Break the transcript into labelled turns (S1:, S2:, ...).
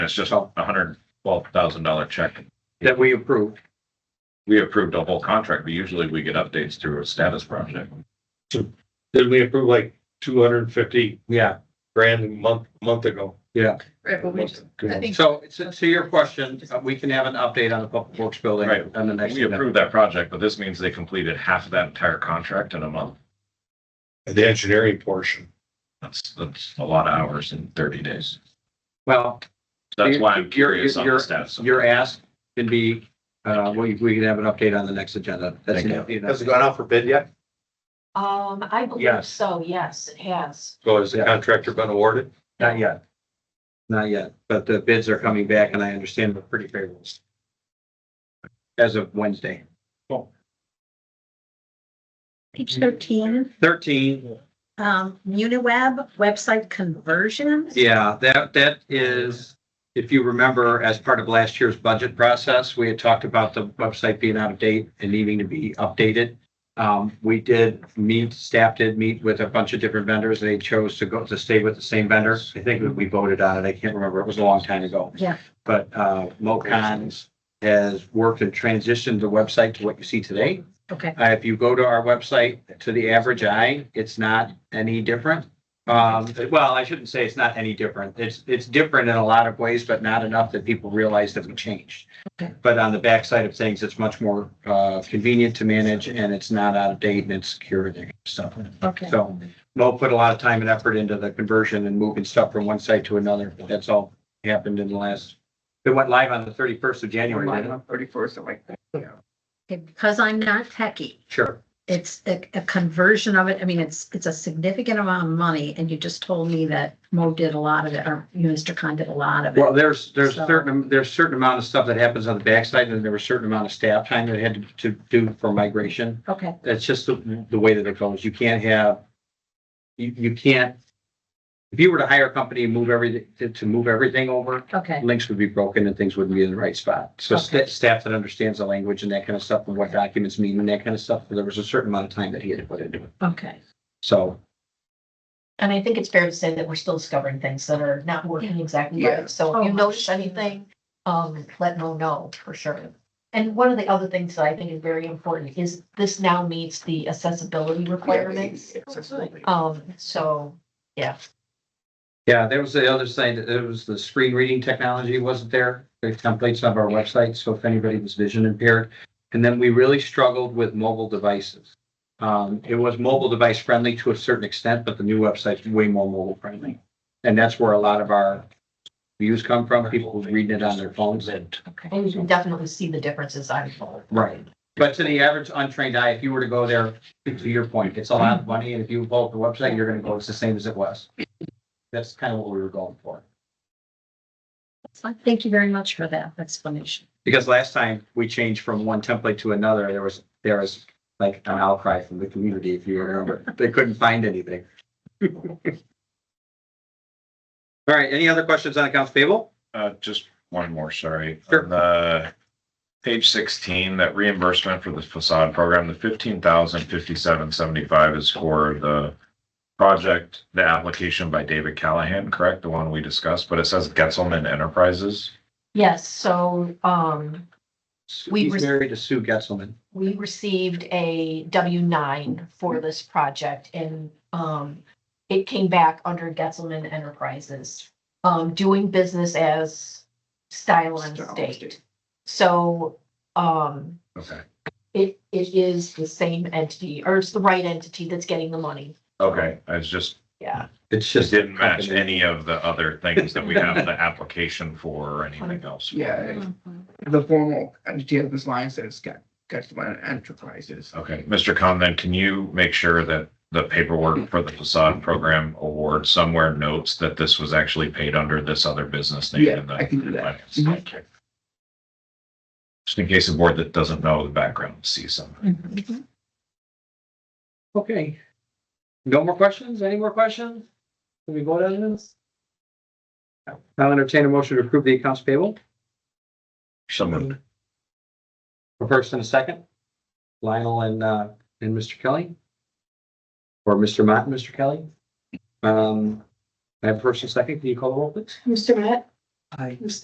S1: It's just a hundred twelve thousand dollar check.
S2: that we approved.
S1: We approved a whole contract, but usually we get updates through a status project.
S2: Did we approve like two hundred and fifty
S3: Yeah,
S2: grand a month, month ago?
S4: Right, but we just, I think,
S3: so, so to your question, uh, we can have an update on the public works building
S1: Right.
S3: on the next.
S1: We approved that project, but this means they completed half of that entire contract in a month.
S2: The engineering portion.
S1: That's, that's a lot of hours in thirty days.
S3: Well,
S1: That's why
S3: You're-
S1: I'm curious on the
S3: you're-
S1: status. of it.
S3: your ask can be, uh, we, we can have an update on the next agenda. That's
S1: Thank
S3: an-
S2: Has it gone out for bid yet?
S5: Um, I believe
S3: Yes.
S5: so, yes, it has.
S2: So has the
S3: Yeah.
S2: contractor been awarded?
S3: Not yet. Not yet, but the bids are coming back and I understand they're pretty favorable. As of Wednesday.
S6: Page thirteen,
S3: Thirteen,
S6: um, Uniweb website conversions.
S3: yeah, that, that is, if you remember, as part of last year's budget process, we had talked about the website being out of date and needing to be updated. Um, we did meet, staff did meet with a bunch of different vendors. They chose to go, to stay with the same vendor. I think we voted on it. I can't remember. It was a long time ago.
S6: Yeah.
S3: But, uh, MoCon has worked and transitioned the website to what you see today.
S6: Okay,
S3: Uh, if you go to our website, to the average eye, it's not any different. Um, well, I shouldn't say it's not any different. It's, it's different in a lot of ways, but not enough that people realize that we changed.
S6: Okay.
S3: But on the backside of things, it's much more, uh, convenient to manage and it's not out of date and it's secure and stuff.
S6: okay.
S3: So Mo put a lot of time and effort into the conversion and moving stuff from one site to another. That's all happened in the last, it went live on the thirty-first of January. didn't it?
S4: thirty-first, I'm like,
S6: Okay, Because I'm not techie,
S3: Sure.
S6: it's a, a conversion of it. I mean, it's, it's a significant amount of money and you just told me that Mo did a lot of it, or you, Mr. Khan did a lot of
S3: Well,
S6: it.
S3: there's, there's
S6: So-
S3: certain, there's certain amount of stuff that happens on the backside and there was certain amount of staff time that had to- to do for migration.
S6: Okay,
S3: That's just the, the way that it goes. You can't have, you, you can't. If you were to hire a company and move everything, to, to move everything over,
S6: okay,
S3: links would be broken and things wouldn't be in the right spot. So sta- staff that understands the language and that kind of stuff and what documents mean and that kind of stuff, there was a certain amount of time that he had to put into it.
S6: okay.
S3: So
S5: And I think it's fair to say that we're still discovering things that are not working exactly right. So if you
S6: Oh,
S5: notice
S6: sure.
S5: anything, um, let Mo know for sure. And one of the other things that I think is very important is this now meets the accessibility requirements.
S4: Accessibility.
S5: Um, so, yeah,
S3: Yeah, there was the other thing, that it was the screen reading technology wasn't there, the templates of our website, so if anybody was vision impaired. And then we really struggled with mobile devices. Um, it was mobile device friendly to a certain extent, but the new website's way more mobile friendly. And that's where a lot of our views come from, people who reading it on their phones.
S5: and you can definitely see the differences on both.
S3: Right. But to the average untrained eye, if you were to go there, to your point, it's a lot of money, and if you vote the website, you're gonna go, it's the same as it was. That's kind of what we were going for.
S6: So Thank you very much for that explanation.
S3: Because last time we changed from one template to another, there was, there was like an outcry from the community, if you remember. They couldn't find anything. All right, any other questions on accounts payable?
S1: Uh, just one more, sorry.
S3: Sure.
S1: On the page sixteen, that reimbursement for the facade program, the fifteen thousand fifty-seven seventy-five is for the project, the application by David Callahan, correct? The one we discussed, but it says Getzelman Enterprises.
S5: Yes, so, um, We
S3: He's
S5: rec-
S3: married to Sue Getzelman.
S5: we received a W nine for this project and, um, it came back under Getzelman Enterprises, um, doing business as Style and
S4: Style and
S5: State.
S4: State.
S5: So, um,
S1: Okay.
S5: it, it is the same entity, or it's the right entity that's getting the money,
S1: Okay, I was just,
S5: yeah.
S3: It's
S1: just
S3: just.
S1: didn't match any of the other things that we have the application for or anything else.
S4: yeah, the formal entity of this line says Get- Getzmann Enterprises.
S1: Okay, Mr. Khan, then can you make sure that the paperwork for the facade program award somewhere notes that this was actually paid under this other business name?
S4: Yeah,
S1: in
S4: I
S1: the
S4: can do that. Mm-hmm.
S1: finance? Okay. Just in case the board that doesn't know the background sees something.
S6: Mm-hmm.
S3: Okay. No more questions? Any more questions? Can we vote on this? I'll entertain a motion to approve the accounts payable.
S1: Someone,
S3: A first and a second? Lionel and, uh, and Mr. Kelly? Or Mr. Mott and Mr. Kelly? Um, I have first and second, can you call the roll, please?
S5: Mr. Matt?
S4: I